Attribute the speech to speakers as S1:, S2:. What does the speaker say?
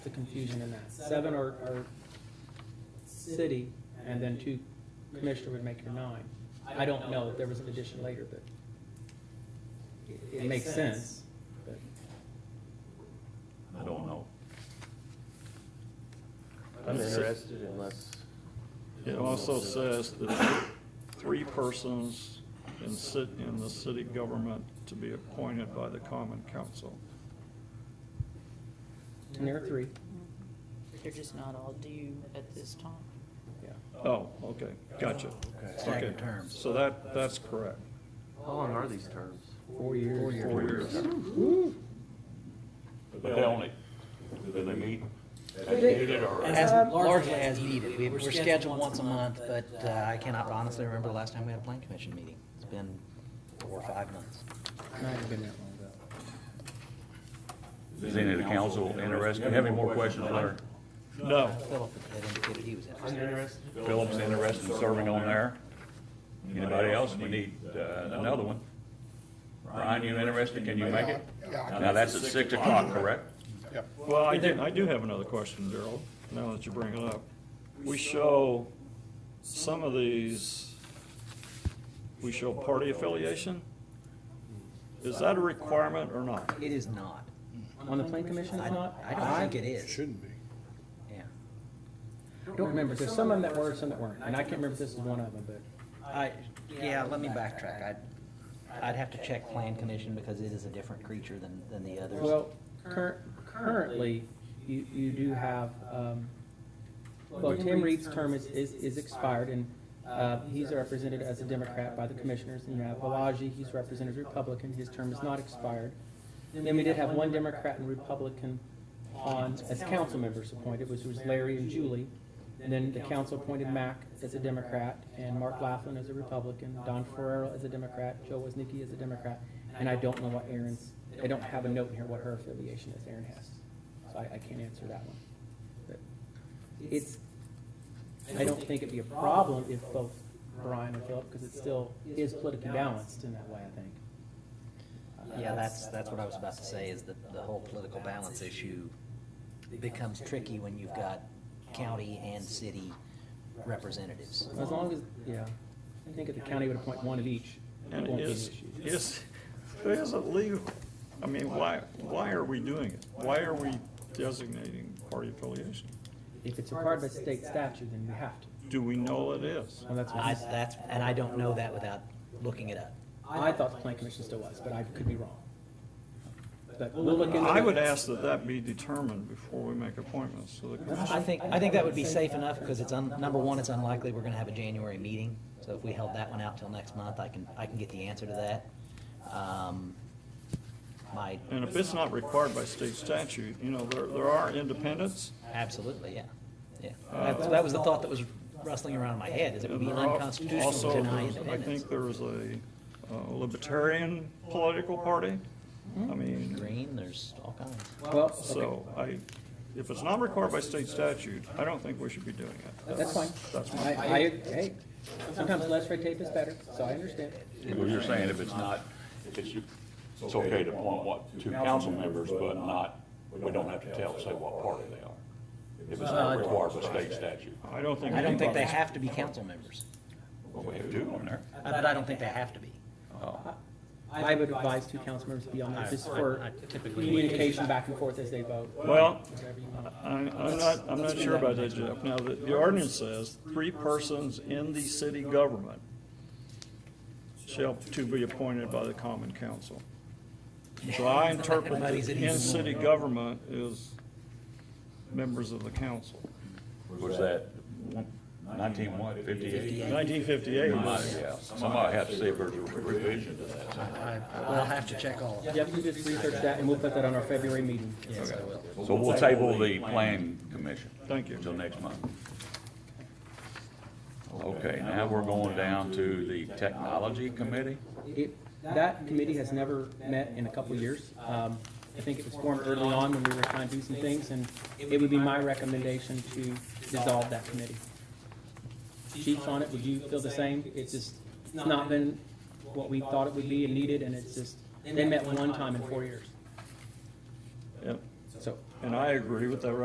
S1: confusion in that. Seven are, are city, and then two commissioner would make your nine. I don't know, if there was an addition later, but it- it makes sense. but-
S2: I don't know.
S3: I'm interested unless,
S2: It also says that three persons in sit, in the city government to be appointed by the common council.
S1: And there are three,
S4: They're just not all due at this time.
S1: yeah.
S2: Oh, okay, gotcha. Okay,
S5: Staggered terms.
S2: so that, that's correct.
S3: how long are these terms?
S1: Four years.
S2: Four years.
S6: But they only, do they meet as
S1: They-
S6: needed or?
S5: As,
S1: Um,
S5: largely as needed. We- We're scheduled once a month, but uh, I cannot honestly remember the last time we had a plan commission meeting. It's been four or five months.
S1: Might have been that long ago.
S6: Is any of the council interested? You have any more questions, Leonard?
S2: No,
S5: Philip had indicated he was interested.
S6: Phillips interested in serving on there? Anybody else? We need uh, another one. Ryan, you interested? Can you make it? Now, that's at six o'clock, correct?
S2: well, I do, I do have another question, Daryl, now that you bring it up. We show some of these, we show party affiliation? Is that a requirement or not?
S5: It is not.
S1: On the plan commission,
S5: I
S1: it's
S5: don't,
S1: not?
S5: I don't think it is. Shouldn't be. Yeah.
S1: Don't remember, there's some of them that were, some that weren't, and I can't remember if this is one of them, but
S5: I, yeah, let me backtrack. I'd, I'd have to check plan commission because it is a different creature than, than the others.
S1: Well, cur- currently, you, you do have, um, well, Tim Reed's term is, is, is expired, and, uh, he's represented as a Democrat by the commissioners, and you have Balaji, he's represented as Republican, his term is not expired. Then we did have one Democrat and Republican on, as council members appointed, which was Larry and Julie. And then the council appointed Mac as a Democrat, and Mark Laughlin as a Republican, Don Ferrero as a Democrat, Joe Woznicki as a Democrat, and I don't know what Erin's, I don't have a note in here what her affiliation is, Erin has. So I, I can't answer that one. But It's, I don't think it'd be a problem if both Brian and Philip, because it still is politically balanced in that way, I think.
S5: Uh,
S1: Uh,
S5: Yeah, that's, that's what I was about to say, is that the whole political balance issue becomes tricky when you've got county and city representatives.
S1: As long as, yeah, I think if the county would appoint one of each, it
S2: And
S1: won't be an
S2: is,
S1: issue.
S2: is, is it legal? I mean, why, why are we doing it? Why are we designating party affiliation?
S1: If it's required by state statute, then we have to.
S2: Do we know it is?
S1: Well, that's what
S5: I,
S1: he said.
S5: that's, and I don't know that without looking it up.
S1: I thought the plan commission still was, but I could be wrong. But we'll look into it.
S2: I would ask that that be determined before we make appointments to the
S5: I
S2: commission.
S5: think, I think that would be safe enough, because it's, un- number one, it's unlikely we're gonna have a January meeting, so if we held that one out till next month, I can, I can get the answer to that. Um, My,
S2: And if it's not required by state statute, you know, there, there are independents.
S5: absolutely, yeah, yeah. That that was the thought that was rustling around in my head, is it would
S2: and
S5: be
S2: there are
S5: unconstitutional to
S2: also-
S5: deny
S2: I
S5: independence.
S2: think there is a uh, libertarian political party.
S5: Hmm.
S2: I mean.
S5: green, there's all kinds.
S1: Well, okay,
S2: So I, if it's not required by state statute, I don't think we should be doing it.
S1: that's fine.
S2: That's
S1: I,
S2: my,
S1: I, hey, sometimes less red tape is better, so I understand.
S6: Well, you're saying if it's not, if it's, it's okay to appoint what, two council members, but not, we don't have to tell, say what party they are. If it's not required by state statute.
S2: I don't think.
S5: I don't think they have to be council members,
S6: Well, we have two on there.
S5: but I don't think they have to be.
S1: I would advise two council members to be on there just
S5: I- I
S1: for
S5: typically-
S1: communication back and forth as they vote.
S2: Well, I, I'm not, I'm not sure about that, Jeff. Now, the, the ordinance says three persons in the city government shall to be appointed by the common council. So I interpret that
S5: Everybody's at
S2: in
S5: ease.
S2: city government is members of the council.
S6: Was that nineteen what, fifty-eight?
S2: Nineteen fifty-eight was.
S6: Yeah, somebody had to say if there's a revision to that.
S5: I'll have to check all of
S1: Yeah, you just research that and we'll put that on our February meeting.
S5: Yes, I will.
S6: So we'll table the plan commission.
S2: Thank you.
S6: Until next month. Okay, now we're going down to the technology committee.
S1: It, that committee has never met in a couple of years. Um, I think it was formed early on when we were trying to do some things, and it would be my recommendation to dissolve that committee. Chief on it, would you feel the same? It's just, it's not been what we thought it would be and needed, and it's just, they met one time in four years.
S2: Yep.
S1: So
S2: And I agree with that